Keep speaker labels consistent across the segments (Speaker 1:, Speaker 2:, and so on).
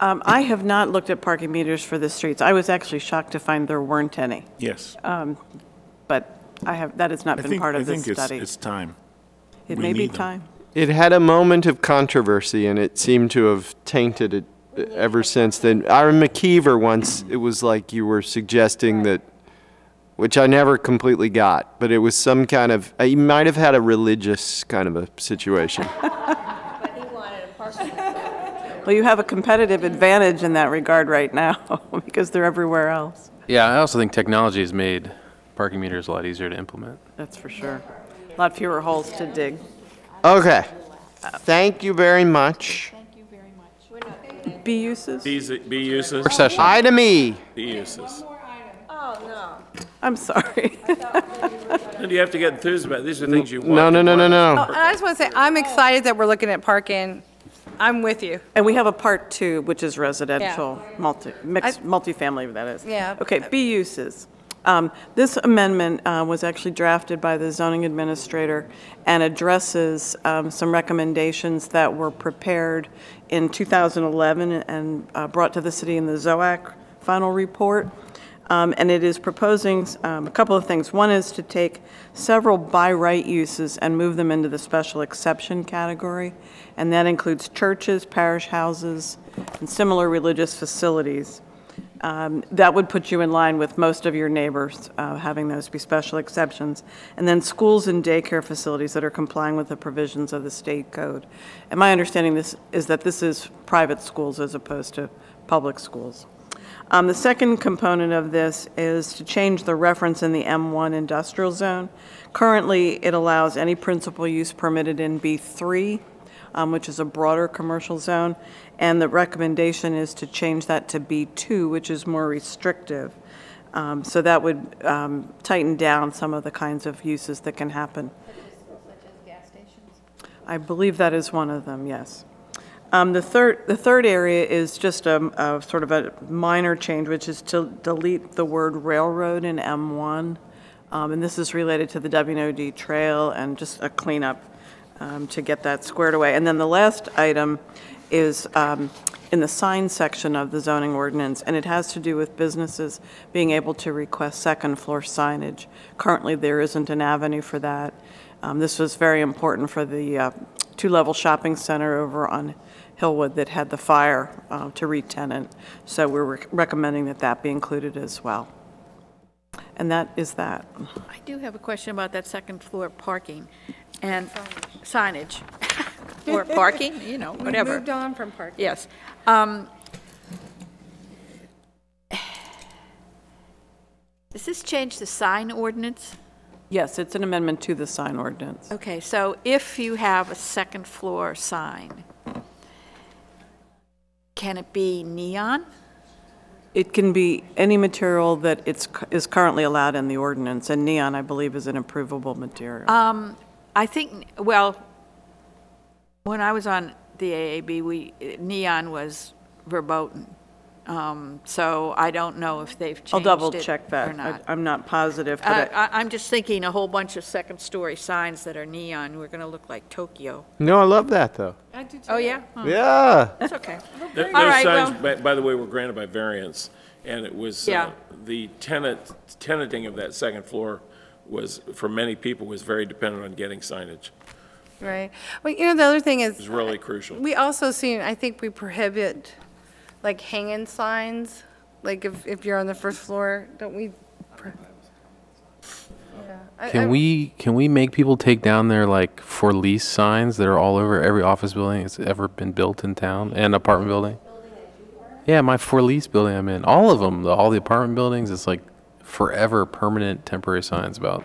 Speaker 1: Um, I have not looked at parking meters for the streets. I was actually shocked to find there weren't any,
Speaker 2: Yes.
Speaker 1: but I have, that has not
Speaker 2: I
Speaker 1: been
Speaker 2: think,
Speaker 1: Um, part
Speaker 2: I
Speaker 1: of this
Speaker 2: think it's,
Speaker 1: study.
Speaker 2: it's time.
Speaker 1: It
Speaker 2: we
Speaker 1: may be
Speaker 2: need them.
Speaker 1: time.
Speaker 3: It had a moment of controversy, and it seemed to have tainted it ever since then. Aaron McKeever once, it was like you were suggesting that, which I never completely got, but it was some kind of, he might have had a religious kind of a situation.
Speaker 1: Well, you have a competitive advantage in that regard right now, because they're everywhere else,
Speaker 4: Yeah, I also think technology has made parking meters a lot easier to implement.
Speaker 1: that's for sure. A lot fewer holes to dig.
Speaker 3: Okay. Thank you very much.
Speaker 1: B uses?
Speaker 2: These, be uses,
Speaker 4: Work session.
Speaker 3: Item E.
Speaker 2: be uses.
Speaker 1: I'm sorry.
Speaker 2: You have to get enthused about, these are things you want.
Speaker 3: No, no,
Speaker 2: to
Speaker 3: no, no,
Speaker 2: want.
Speaker 3: no.
Speaker 5: And I just want to say, I'm excited that we're looking at parking. I'm with you.
Speaker 1: And we have a part two, which is residential, multi, mixed,
Speaker 5: I-
Speaker 1: multifamily, that is.
Speaker 5: Yeah.
Speaker 1: Okay, B uses. Um, This amendment uh, was actually drafted by the zoning administrator and addresses um, some recommendations that were prepared in 2011 and uh, brought to the city in the ZOAC final report. Um, And it is proposing um, a couple of things. One is to take several by right uses and move them into the special exception category, and that includes churches, parish houses, and similar religious facilities. Um, That would put you in line with most of your neighbors, uh, having those be special exceptions. And then schools and daycare facilities that are complying with the provisions of the state code. And my understanding this, is that this is private schools as opposed to public schools. Um, The second component of this is to change the reference in the M1 industrial zone. Currently, it allows any principal use permitted in B3, um, which is a broader commercial zone, and the recommendation is to change that to B2, which is more restrictive. Um, So that would um, tighten down some of the kinds of uses that can happen. I believe that is one of them, yes. Um, The third, the third area is just a, a sort of a minor change, which is to delete the word railroad in M1. Um, And this is related to the WNOD trail and just a cleanup um, to get that squared away. And then the last item is um, in the sign section of the zoning ordinance, and it has to do with businesses being able to request second-floor signage. Currently, there isn't an avenue for that. Um, This was very important for the uh, two-level shopping center over on Hillwood that had the fire uh, to re-tenant, so we're rec- recommending that that be included as well. And that is that.
Speaker 6: I do have a question about that second floor parking and signage, or parking, you know,
Speaker 5: We
Speaker 6: whatever.
Speaker 5: moved on from parking.
Speaker 6: Yes. Um, Does this change the sign ordinance?
Speaker 1: Yes, it's an amendment to the sign ordinance.
Speaker 6: Okay, so if you have a second floor sign, can it be neon?
Speaker 1: It can be any material that it's, is currently allowed in the ordinance, and neon, I believe, is an approvable material.
Speaker 6: I think, well, when I was on the AAB, we, neon was verboten. Um, So I don't know if they've changed it
Speaker 1: I'll
Speaker 6: or not.
Speaker 1: double-check that. I- I'm not Uh, positive,
Speaker 6: I-
Speaker 1: but I-
Speaker 6: I- I'm just thinking a whole bunch of second-story signs that are neon, we're going to look like Tokyo.
Speaker 3: No, I love that, though.
Speaker 6: Oh, yeah? Oh,
Speaker 3: Yeah.
Speaker 6: That's okay.
Speaker 2: Th- Those
Speaker 6: All right,
Speaker 2: signs,
Speaker 6: well-
Speaker 2: by, by the way, were granted by variance, and it was,
Speaker 6: Yeah.
Speaker 2: uh, the tenant, tenanting of that second floor was, for many people, was very dependent on getting signage.
Speaker 5: Right. Well, you know, the other thing
Speaker 2: It
Speaker 5: is,
Speaker 2: was really crucial.
Speaker 5: we also seen, I think we prohibit, like, hanging signs, like, if, if you're on the first floor, don't we? pro- Yeah. I- I-
Speaker 4: Can we can we make people take down their like for lease signs that are all over every office building that's ever been built in town and apartment building? Yeah, my for lease building I'm in, all of them, the, all the apartment buildings, it's like forever permanent temporary signs about.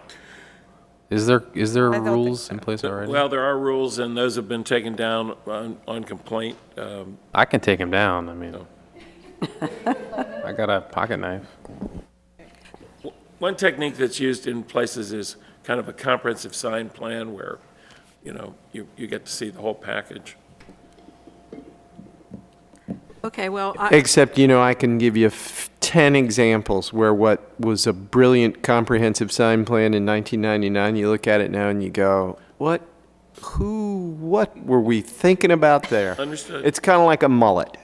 Speaker 4: Is there is there
Speaker 5: don't think
Speaker 4: rules in place already?
Speaker 2: Well, there are rules, and those have been taken down on, on complaint. Um,
Speaker 4: I can take him down. I mean, I got a pocket knife.
Speaker 2: One technique that's used in places is kind of a comprehensive sign plan where, you know, you, you get to see the whole package.
Speaker 6: Okay, well, I-
Speaker 3: Except, you know, I can give you f- 10 examples where what was a brilliant comprehensive sign plan in 1999, you look at it now and you go, what, who, what were we thinking about there?
Speaker 2: Understood.
Speaker 3: It's kind of like a mullet.